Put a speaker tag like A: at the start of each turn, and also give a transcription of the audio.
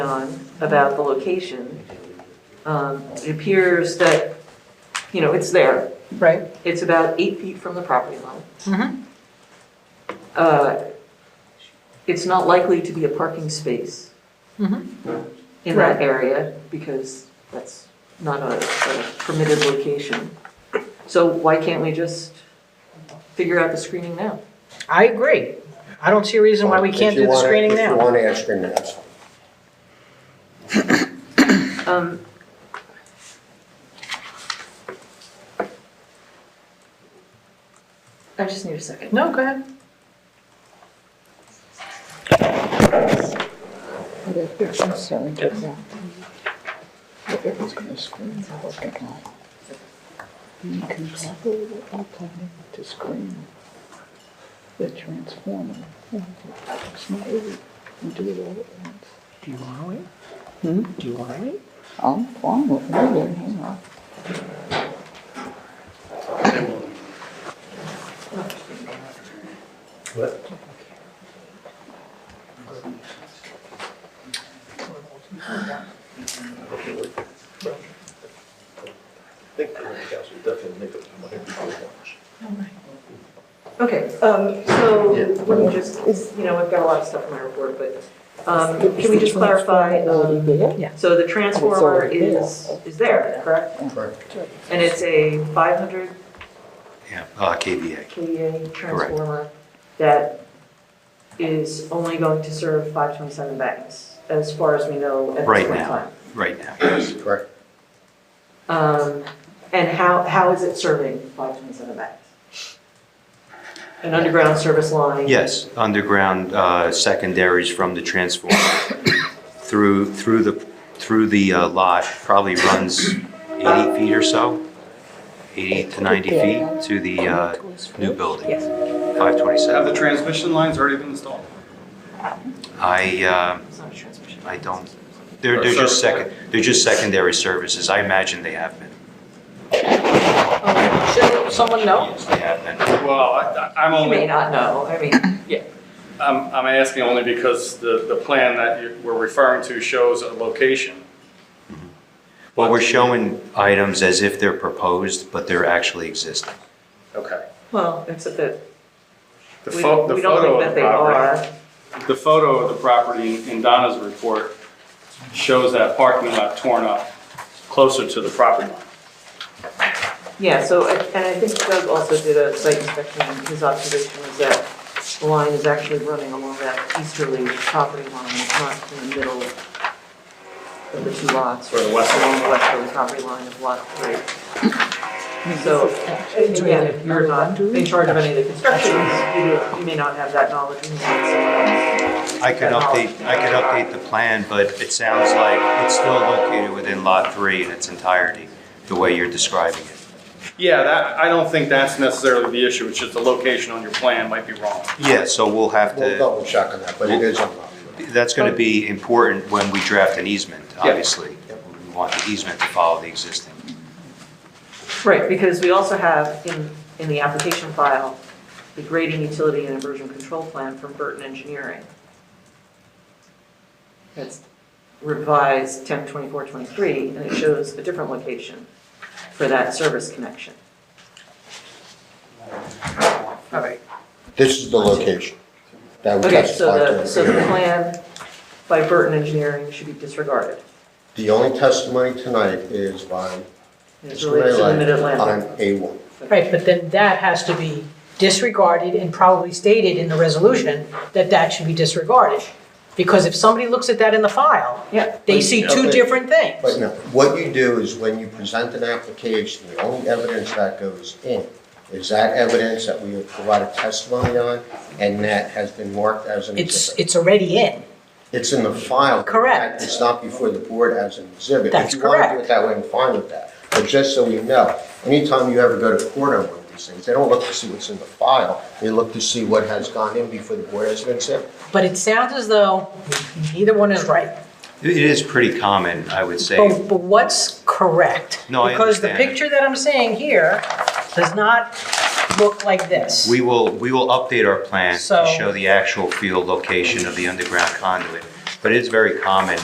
A: on about the location. Um, It appears that, you know, it's there.
B: Right.
A: It's about eight feet from the property line.
B: Mhm.
A: Uh, It's not likely to be a parking space
B: Mhm.
A: in that area because that's not a a permitted location. So why can't we just figure out the screening now?
B: I agree. I don't see a reason why we
C: If
B: can't
C: you
B: do the
C: wanna-
B: screening
C: If you
B: now.
C: want to add screening, that's fine.
A: Um, I just need a second.
B: No, go ahead.
A: Um,
D: Incompatible with our planning to screen the transformer. It's not easy. You do it all at once.
B: Do you want to wait?
D: Hmm?
B: Do you want to wait?
D: I'm fine with moving, you know.
E: think the council definitely make up their mind before lunch.
A: Okay, um, so
E: Yeah.
A: let me just, you know, I've got a lot of stuff in my report, but um, can we just clarify? um, So the transformer
D: It's already there.
A: is, is there, correct?
C: Correct.
A: And it's a 500
F: Yeah, uh, KVA.
A: KVA transformer that is only going to serve 527 banks, as far as we know at this
F: Right
A: point in
F: now.
A: time.
F: right now, yes.
C: Correct.
A: Um, And how, how is it serving 527 banks? An underground service line?
F: Yes, underground uh, secondaries from the transformer through, through the, through the uh, lot, probably runs 80 feet or so, 80 to 90 feet to the uh, new building,
A: Yes.
F: 527.
G: Have the transmission lines already been installed?
F: I, uh,
A: It's not a transmission.
F: I don't, they're, they're just second, they're just secondary services. I imagine they have been.
A: Oh,
B: Should someone know?
F: Yes, They have been.
G: Well, I- I- I'm
A: You may
G: only,
A: not know, I mean,
G: I'm I'm asking only because the, the plan that you we're referring to shows a location.
F: Well, we're showing items as if they're proposed, but they're actually existing.
G: Okay.
A: well, except that
G: The
A: we we
G: pho-
A: don't
G: the photo
A: think
G: of
A: that
G: the
A: they
G: property.
A: are.
G: The photo of the property in Donna's report shows that parking lot torn up closer to the property line.
A: Yeah, so, I- and I think Doug also did a site inspection, and his observation was that the line is actually running along that easterly property line, it's not in the middle of the two lots.
G: Or the westerly.
A: Along the westerly property line of lot three. So, again, if you're not in charge of any of the constructions, you you may not have that knowledge. and that's-
F: I could update, I could update the plan, but it sounds like it's still located within Lot 3 in its entirety, the way you're describing it.
G: Yeah, that, I don't think that's necessarily the issue, it's just the location on your plan might be wrong.
F: Yeah, so we'll have
C: We'll
F: to,
C: double check on that, but it is unlocked.
F: that's going to be important when we draft an easement,
G: Yeah.
F: obviously. We want the easement to follow the existing.
A: Right, because we also have in, in the application file, the grading utility and inversion control plan from Burton Engineering. That's revised 10 24 23, and it shows a different location for that service connection. All right,
C: This is the location that we
A: okay, so the,
C: testified
A: so the
C: to.
A: plan by Burton Engineering should be disregarded.
C: The only testimony tonight is by
A: It's
C: Mr.
A: related to the
C: Mayland on
A: Mid-Atlantic.
C: A1.
B: Right, but then that has to be disregarded and probably stated in the resolution that that should be disregarded. Because if somebody looks at that in the file,
A: Yeah,
B: they see two
C: Okay.
B: different
C: But
B: things.
C: no, what you do is when you present an application, the only evidence that goes in is that evidence that we have provided testimony on and that has been marked as an
B: It's,
C: exhibit.
B: it's already in.
C: It's in the file.
B: Correct.
C: It's not before the board as an exhibit.
B: That's
C: If you want to do it that way, I'm fine with that. But just so you know, anytime you ever go to court on one of these things, they don't look to see what's in the file. They look to see what has gone in before the board has been sent.
B: But it sounds as though neither one is right.
F: It is pretty common, I would say.
B: But, but what's correct?
F: No, I
B: Because the
F: understand.
B: picture that I'm seeing here does not look like this.
F: We will, we will update our plan
B: So-
F: to show the actual field location of the underground conduit, but it's very common